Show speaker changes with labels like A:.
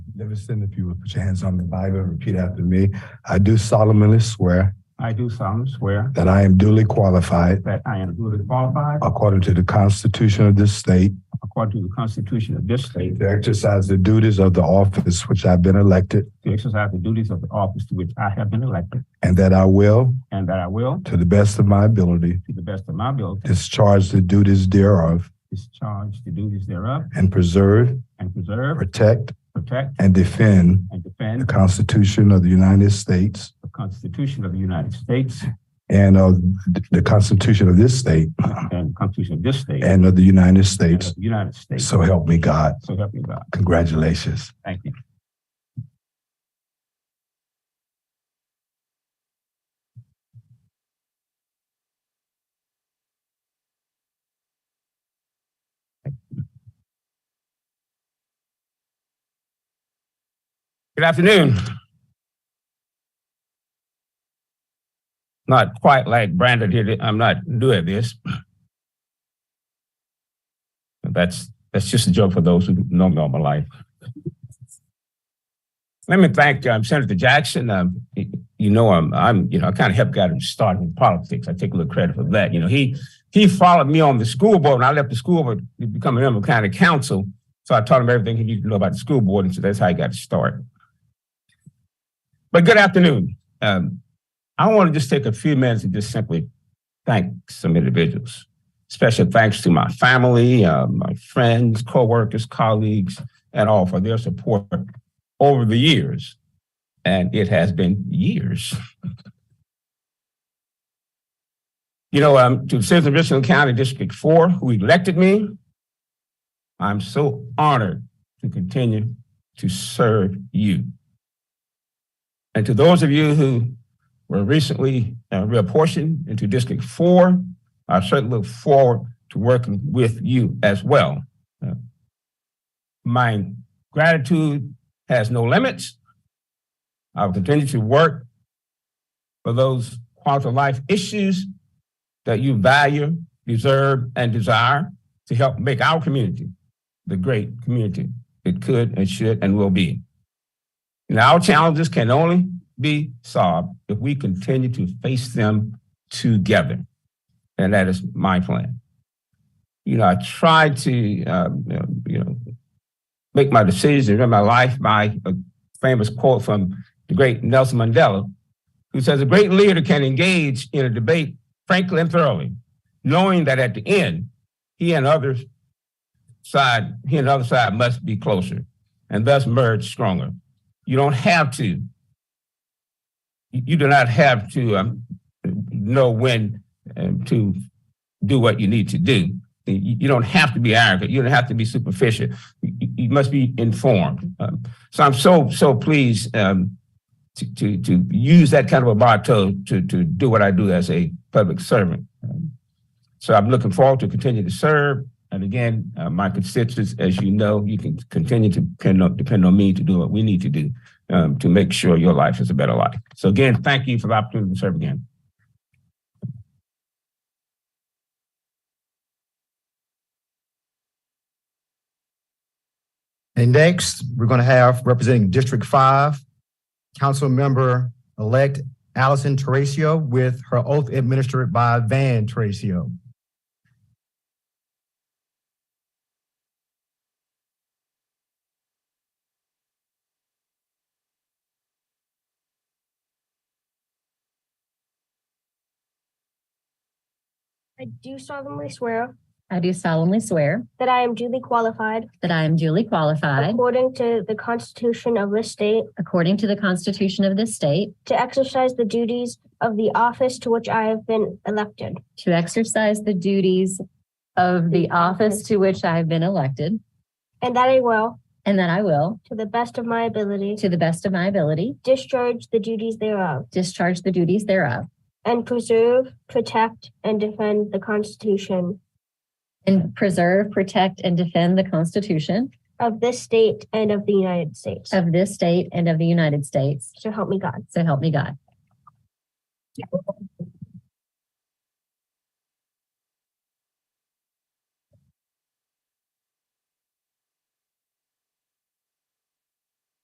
A: Never sin if you would put your hands on the Bible and repeat after me. I do solemnly swear
B: I do solemnly swear
A: that I am duly qualified
B: that I am duly qualified
A: according to the Constitution of this state
B: according to the Constitution of this state
A: to exercise the duties of the office which I've been elected
B: to exercise the duties of the office to which I have been elected,
A: and that I will,
B: and that I will,
A: to the best of my ability,
B: to the best of my ability,
A: discharge the duties thereof
B: discharge the duties thereof
A: and preserve,
B: and preserve,
A: protect,
B: protect,
A: and defend
B: and
A: the
B: defend
A: Constitution of the United States
B: the Constitution of the United States
A: and of the Constitution of this state
B: and the Constitution of this state and
A: and of the United
B: of
A: States.
B: the United States.
A: So help me God.
B: So help me God.
A: Congratulations.
B: Thank you. Good afternoon. Not quite like Brandon did it. I'm not new at this. That's that's just a joke for those who know me all my life. Let me thank um, Senator Jackson. Um, y- you know, I'm, I'm, you know, I kind of helped got him started in politics. I take a little credit for that. You know, he he followed me on the school board, and I left the school board to become a member of county council. So I taught him everything he needed to know about the school board, and so that's how he got to start. But good afternoon. Um, I want to just take a few minutes and just simply thank some individuals. Special thanks to my family, uh, my friends, coworkers, colleagues, and all for their support over the years. And it has been years. You know, um, to the citizens of Richland County District Four, who elected me, I'm so honored to continue to serve you. And to those of you who were recently uh, reapportioned into District Four, I certainly look forward to working with you as well. Uh, My gratitude has no limits. I will continue to work for those quality of life issues that you value, deserve, and desire to help make our community the great community it could and should and will be. And our challenges can only be solved if we continue to face them together and that is my plan. You know, I try to, um, you know, you know, make my decisions and run my life by a famous quote from the great Nelson Mandela, who says, "A great leader can engage in a debate frankly and thoroughly, knowing that at the end, he and others side, he and the other side must be closer, and thus merge stronger. You don't have to. You you do not have to um, know when um, to do what you need to do. You, you don't have to be arrogant. You don't have to be superficial. You, you- you must be informed. Um, so I'm so so pleased um, to, to to use that kind of a motto to to do what I do as a public servant. Um, so I'm looking forward to continue to serve. And again, uh, my constituents, as you know, you can continue to depend on, depend on me to do what we need to do um, to make sure your life is a better life. So again, thank you for the opportunity to serve again.
C: And next, we're going to have representing District Five, Councilmember-elect Allison Teresa with her oath administered by Van Teresa.
D: I do solemnly swear
E: I do solemnly swear
D: that I am duly qualified
E: that I am duly qualified,
D: according to the Constitution of this state
E: according to the Constitution of this state,
D: to exercise the duties of the office to which I have been elected
E: to exercise the duties of the office to which I have been elected,
D: and that I will,
E: and that I will,
D: to the best of my ability,
E: to the best of my ability,
D: discharge the duties thereof
E: discharge the duties thereof,
D: and preserve, protect, and defend the Constitution
E: and preserve, protect, and defend the Constitution
D: of this state and of the United States.
E: of this state and of the United States.
D: So help me God.
E: So help me God.